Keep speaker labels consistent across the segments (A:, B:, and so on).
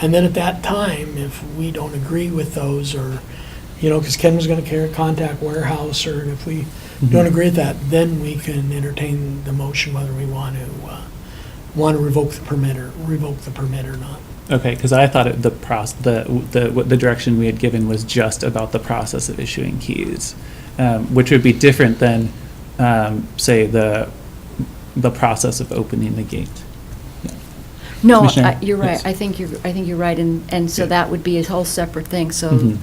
A: And then at that time, if we don't agree with those, or, you know, because Ken was going to care, contact warehouse, or if we
B: Mm-hmm.
A: don't agree with that, then we can entertain the motion whether we want to, uh, want to revoke the permit or revoke the permit or not.
B: Okay, because I thought it- the process, the, the, what the direction we had given was just about the process of issuing keys, um, which would be different than, um, say, the, the process of opening the gate.
C: No,
B: Commissioner?
C: I- you're right,
B: Yes.
C: I think you're, I think you're right, and, and so
B: Yeah.
C: that would be a whole separate thing, so
B: Mhm.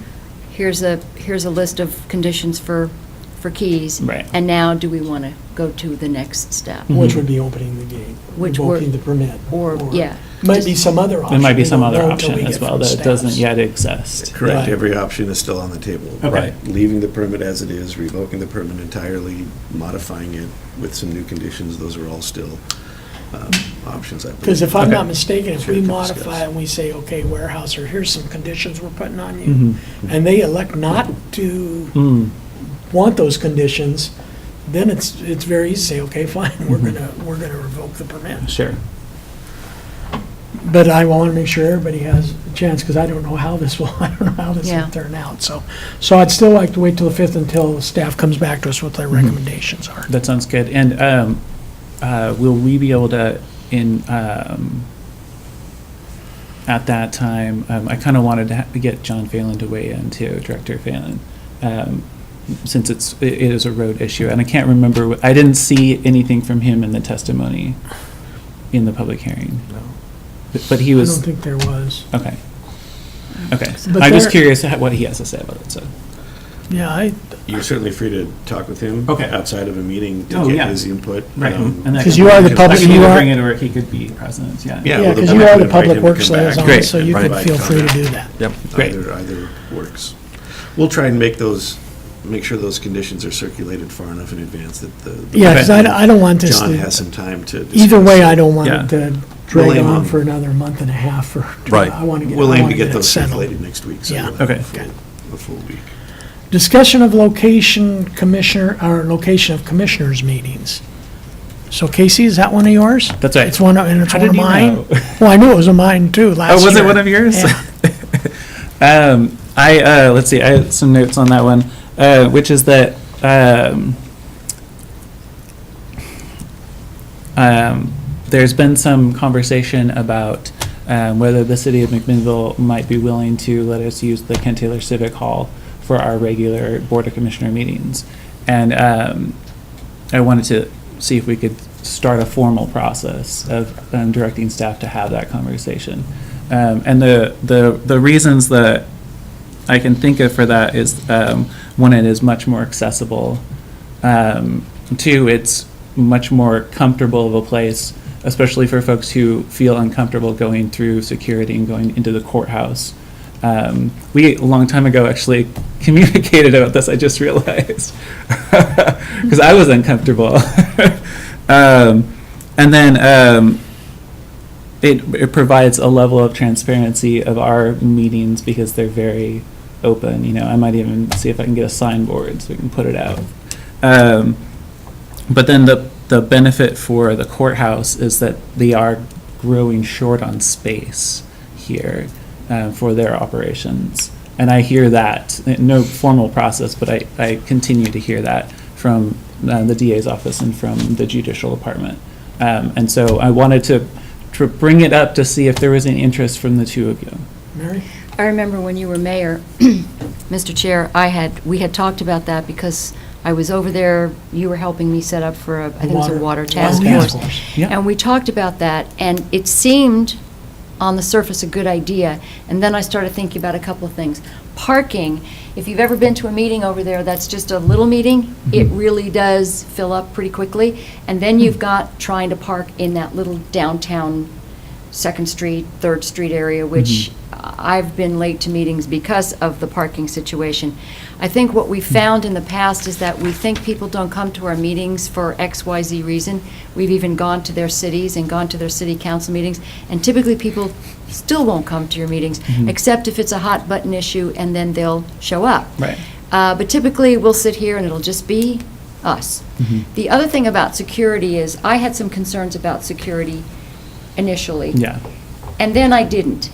C: here's a, here's a list of conditions for, for keys.
B: Right.
C: And now, do we want to go to the next step?
B: Mhm.
A: Which would be opening the gate,
C: Which were-
A: revoking the permit.
C: or- yeah,
A: Might
C: just-
A: be some other option.
B: There might be
A: We
B: some
A: don't
B: other
A: know until we
B: option as
A: get
B: well
A: from
B: that
A: staff.
B: doesn't yet exist.
A: Right.
D: Correct, every option is still on the table.
B: Okay.
D: Right. Leaving the permit as it is, revoking the permit entirely, modifying it with some new conditions, those are all still um, options, I believe.
A: Because if I'm
B: Okay.
A: not mistaken, if we
D: Sure,
A: modify
D: discuss.
A: and we say, okay, warehouse, or here's some conditions we're putting on
B: Mhm.
A: you, and they elect not to
B: Mm,
A: want those conditions, then it's, it's very easy to say, okay, fine, we're gonna,
D: Mm-hmm.
A: we're gonna revoke the permit.
B: sure.
A: But I want to make sure everybody has a chance, because I don't know how this will, I don't know how this
C: Yeah.
A: will turn out, so. So I'd still like to wait till the 5th until staff comes back to us what
D: Mm-hmm.
A: their recommendations are.
B: That sounds good. And um, uh, will we be able to, in, um, at that time, um, I kind of wanted to ha- get John Phelan to weigh in too, Director Phelan, um, since it's, it it is a road issue. And I can't remember, what- I didn't see anything from him in the testimony in the public hearing. But- But he
A: I don't
B: was,
A: think there was.
B: okay. Okay.
A: But
B: I'm just
A: there-
B: curious how- what he has to say about it, so.
A: Yeah, I,
D: You're certainly free to talk with him.
B: Okay.
D: Outside of a meeting
B: Oh,
D: to get
B: yeah.
D: his input. um,
B: And that
A: 'Cause you
B: can be-
A: are the
B: I
A: public-
B: can
A: you
B: either
A: are-
B: Bring it where he could be present, yeah.
D: Yeah,
A: yeah,
D: well, the
A: because you
D: board
A: are
D: would
A: the
D: invite
A: public
D: him to
A: works
D: come back
A: liaison,
B: Great.
A: so
D: and
A: you could
D: provide
A: feel free to
D: comment.
A: do that.
D: Yep.
B: Great.
D: Either, either works. We'll try and make those, make sure those conditions are circulated far enough in advance that the. the-
A: Yeah, because I don't- I don't want this
D: John
A: to-
D: has some time to.
A: Either
D: discuss.
A: way, I don't want
B: Yeah.
A: it to drag
D: We'll aim
A: on
D: on-
A: for another month and a half or.
E: Right.
A: I want to get.
D: We'll
A: I
D: aim
A: wanna
D: to get
A: it
D: those
A: settled.
D: circulated next week. so
A: Yeah.
D: we'll have
B: Okay.
D: a full- A full week.
A: Discussion of location commissioner, or location of commissioners meetings. So Casey, is that one of yours?
B: That's right.
A: It's one, of- and it's
B: How
A: one of
B: did you
A: mine.
B: know?
A: Well, I knew it was of mine too, last year.
B: Oh, was it one of yours?
A: Yeah.
B: Um, I, uh, let's see, I had some notes on that one, uh, which is that, um, um, there's been some conversation about, um, whether the city of McMinnville might be willing to let us use the Kent Taylor Civic Hall for our regular Board of Commissioner meetings. And, um, I wanted to see if we could start a formal process of um, directing staff to have that conversation. Um, and the, the, the reasons that I can think of for that is, um, one, it is much more accessible. Um, two, it's much more comfortable of a place, especially for folks who feel uncomfortable going through security and going into the courthouse. Um, we, a long time ago, actually communicated about this, I just realized, because I was uncomfortable. um, and then um, it, it provides a level of transparency of our meetings because they're very open. You know, I might even see if I can get a signboard so we can put it out. Um, but then the the benefit for the courthouse is that they are growing short on space here uh, for their operations, and I hear that eh, no formal process, but I, I continue to hear that from uh, the DA's office and from the judicial department, um, and so I wanted to to bring it up to see if there was any interest from the two of you.
A: Mary?
C: I remember when you were mayor, Mr. Chair, I had, we had talked about that because I was over there, you were helping me set up for, a I think it was a water task
B: task
C: force. And we talked about that, and it seemed, on the surface, a good idea. And then I started thinking about a couple of things. Parking, if you've ever been to a meeting over there, that's just a little meeting, it really does fill up pretty quickly. And then you've got trying to park in that little downtown Second Street, Third Street area, which I've been late to meetings because of the parking situation. I think what we found in the past is that we think people don't come to our meetings for X, Y, Z reason. We've even gone to their cities and gone to their city council meetings, and typically people still won't come to your meetings, except if it's a hot button issue, and then they'll show up.
B: Right.
C: Uh, But typically, we'll sit here and it'll just be us. The other thing about security is, I had some concerns about security initially.
B: Yeah.
C: And then I didn't.